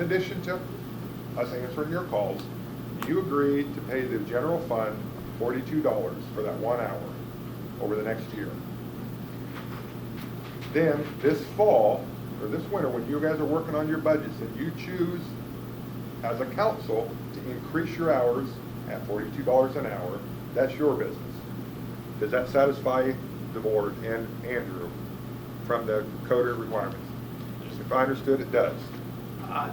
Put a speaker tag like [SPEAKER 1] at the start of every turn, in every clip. [SPEAKER 1] In addition to us answering your calls, you agreed to pay the general fund forty-two dollars for that one hour over the next year. Then, this fall, or this winter, when you guys are working on your budgets, and you choose as a council to increase your hours at forty-two dollars an hour, that's your business. Does that satisfy the board and Andrew from the coder requirements? If I understood, it does.
[SPEAKER 2] Uh,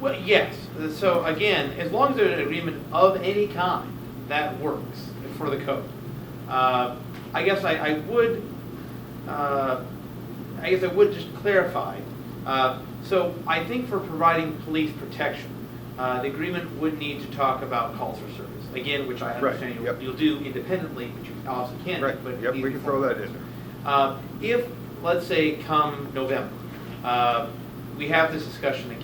[SPEAKER 2] Well, yes, so again, as long as there's an agreement of any kind, that works for the code. Uh, I guess I, I would, uh, I guess I would just clarify, Uh, so I think for providing police protection, uh, the agreement would need to talk about calls for service, again, which I
[SPEAKER 1] Right,
[SPEAKER 2] understand you'll-
[SPEAKER 1] yep.
[SPEAKER 2] you'll do independently, which you obviously can,
[SPEAKER 1] Right,
[SPEAKER 2] but.
[SPEAKER 1] yep, we
[SPEAKER 2] these
[SPEAKER 1] can throw
[SPEAKER 2] before-
[SPEAKER 1] that in there.
[SPEAKER 2] Uh, If, let's say, come November, uh, we have this discussion again,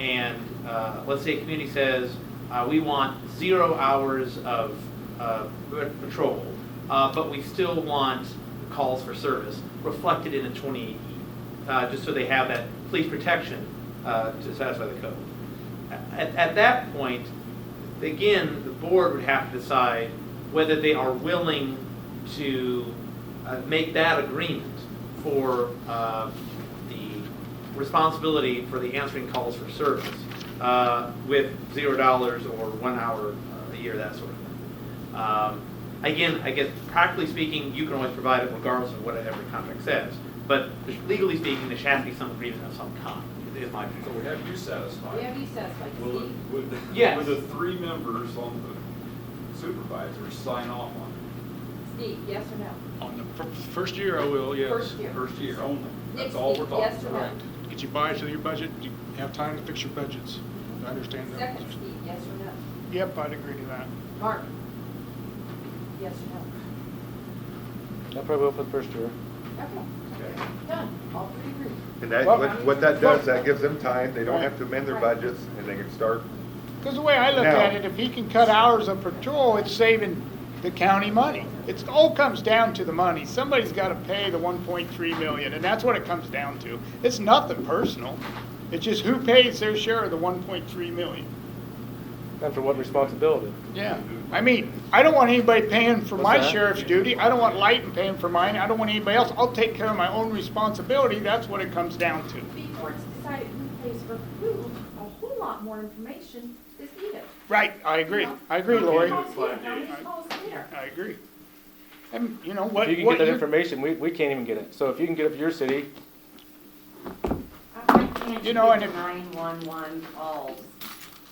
[SPEAKER 2] and uh, let's say a community says, uh, we want zero hours of uh, pat- patrol, uh, but we still want calls for service reflected in a 28E, uh, just so they have that police protection uh, to satisfy the code. At, at that point, again, the board would have to decide whether they are willing to uh, make that agreement for uh, the responsibility for the answering calls for service uh, with zero dollars or one hour uh, a year, that sort of thing. Um, Again, I guess practically speaking, you can always provide it regardless of what every contract says, but legally speaking, there should have to be some agreement of some kind, is my
[SPEAKER 3] So
[SPEAKER 2] view.
[SPEAKER 3] we have you satisfied.
[SPEAKER 4] We have you satisfied,
[SPEAKER 3] Will it,
[SPEAKER 4] Steve?
[SPEAKER 3] would,
[SPEAKER 2] Yes.
[SPEAKER 3] would the three members on the supervisors sign off on
[SPEAKER 4] Steve, yes or no?
[SPEAKER 5] On the fir- first year, I will, yes.
[SPEAKER 4] First
[SPEAKER 3] it?
[SPEAKER 4] year.
[SPEAKER 3] First year only.
[SPEAKER 4] Next
[SPEAKER 3] That's all we're
[SPEAKER 4] week, yes
[SPEAKER 3] talking
[SPEAKER 4] or no?
[SPEAKER 3] about.
[SPEAKER 5] Get you buy-in to your budget, you have time to fix your budgets. I understand that.
[SPEAKER 4] Second, Steve, yes or no?
[SPEAKER 6] Yep, I'd agree to that.
[SPEAKER 4] Mark? Yes or
[SPEAKER 7] I'll probably will for the first year.
[SPEAKER 4] no? Okay. Done, all three agree.
[SPEAKER 1] And that,
[SPEAKER 6] Well-
[SPEAKER 1] what- what that does, that gives them time, they don't have to amend their budgets, and they can start,
[SPEAKER 6] Because the way I look
[SPEAKER 1] No.
[SPEAKER 6] at it, if he can cut hours of patrol, it's saving the county money. It's, all comes down to the money. Somebody's got to pay the 1.3 million, and that's what it comes down to. It's nothing personal. It's just who pays their share of the 1.3 million.
[SPEAKER 7] And for what responsibility?
[SPEAKER 6] Yeah. I mean, I don't want anybody paying for
[SPEAKER 7] What's
[SPEAKER 6] my
[SPEAKER 7] that?
[SPEAKER 6] sheriff's duty. I don't want Lighton paying for mine. I don't want anybody else. I'll take care of my own responsibility. That's what it comes down to.
[SPEAKER 4] Before it's decided who pays for who, a whole lot more information is needed.
[SPEAKER 6] Right, I agree. I agree, Lori.
[SPEAKER 4] How many calls here, how many calls there?
[SPEAKER 6] I agree. And, you know, what,
[SPEAKER 7] If you can
[SPEAKER 6] what
[SPEAKER 7] get that
[SPEAKER 6] you-
[SPEAKER 7] information, we, we can't even get it. So if you can get it for your city,
[SPEAKER 8] Why can't
[SPEAKER 6] You
[SPEAKER 8] you
[SPEAKER 6] know, and
[SPEAKER 8] get
[SPEAKER 6] if-
[SPEAKER 8] 911 calls?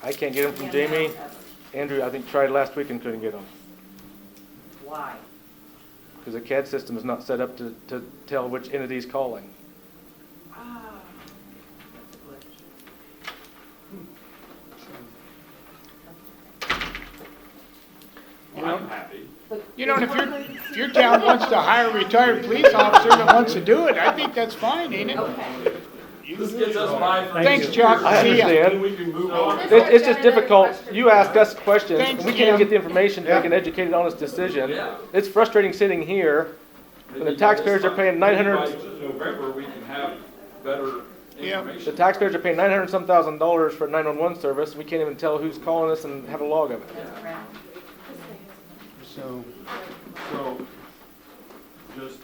[SPEAKER 7] I can't get them from
[SPEAKER 8] and
[SPEAKER 7] Jamie.
[SPEAKER 8] not others?
[SPEAKER 7] Andrew, I think tried last week and couldn't get them.
[SPEAKER 8] Why?
[SPEAKER 7] Because the CAD system is not set up to, to tell which entity's calling.
[SPEAKER 8] Ah, that's a glitch.
[SPEAKER 3] Well, I'm happy.
[SPEAKER 6] You know, and if your, if your town wants to hire a retired police officer that wants to do it, I think that's fine, ain't it?
[SPEAKER 4] Okay.
[SPEAKER 3] This gets us by for.
[SPEAKER 6] Thanks, Chuck.
[SPEAKER 7] I
[SPEAKER 6] See ya.
[SPEAKER 3] Then
[SPEAKER 7] understand.
[SPEAKER 3] we can move on.
[SPEAKER 8] Oh,
[SPEAKER 4] This
[SPEAKER 7] It's, it's
[SPEAKER 4] I've
[SPEAKER 7] just
[SPEAKER 4] got another
[SPEAKER 7] difficult.
[SPEAKER 4] question.
[SPEAKER 7] You ask us questions,
[SPEAKER 6] Thanks,
[SPEAKER 7] and we can't even
[SPEAKER 6] Jim.
[SPEAKER 7] get the information to make an
[SPEAKER 1] Yeah.
[SPEAKER 7] educated, honest decision.
[SPEAKER 3] Yeah.
[SPEAKER 7] It's frustrating sitting here And the taxpayers are paying 900
[SPEAKER 3] By November, we can have better
[SPEAKER 6] Yeah.
[SPEAKER 7] The
[SPEAKER 3] information.
[SPEAKER 7] taxpayers are paying nine hundred and some thousand dollars for nine-one-one service, we can't even tell who's calling us and have a log of it.
[SPEAKER 6] So,
[SPEAKER 9] So, just,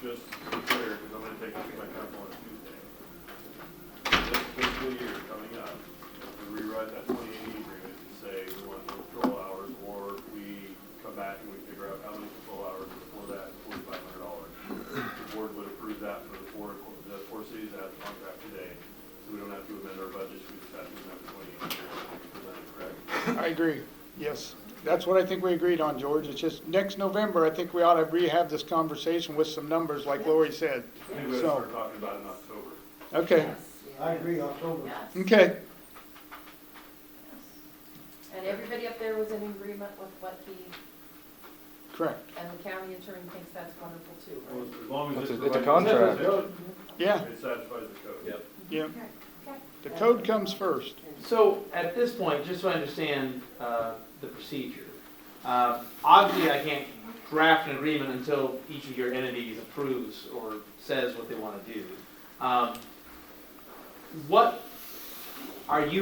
[SPEAKER 9] just to be clear, because I'm gonna take this back up on Tuesday. This fiscal year coming up, we rewrite that twenty eighty agreement to say we want no control hours, or we come back and we figure out how many control hours before that, forty-five hundred dollars. The board would approve that for the four, the four cities that have the contract today, so we don't have to amend our budgets, we just have to amend the twenty eighty agreement, is that correct?
[SPEAKER 6] I agree, yes. That's what I think we agreed on, George. It's just, next November, I think we ought to rehab this conversation with some numbers, like Lori said.
[SPEAKER 9] Maybe we
[SPEAKER 6] So,
[SPEAKER 9] start talking about it in October.
[SPEAKER 6] okay,
[SPEAKER 10] I agree, October.
[SPEAKER 4] Yes.
[SPEAKER 6] okay.
[SPEAKER 4] And everybody up there was in agreement with what he,
[SPEAKER 6] Correct,
[SPEAKER 4] and the county attorney thinks that's wonderful too,
[SPEAKER 9] Well,
[SPEAKER 4] right?
[SPEAKER 9] As long as
[SPEAKER 7] It's
[SPEAKER 9] it
[SPEAKER 7] a- it's a
[SPEAKER 9] provides-
[SPEAKER 6] yeah,
[SPEAKER 9] It satisfies the code.
[SPEAKER 3] Yep.
[SPEAKER 6] yeah.
[SPEAKER 4] Okay.
[SPEAKER 6] The code comes first.
[SPEAKER 2] So at this point, just so I understand uh, the procedure, uh, obviously I can't draft an agreement until each of your entities approves or says what they want to do. Um, What, Are you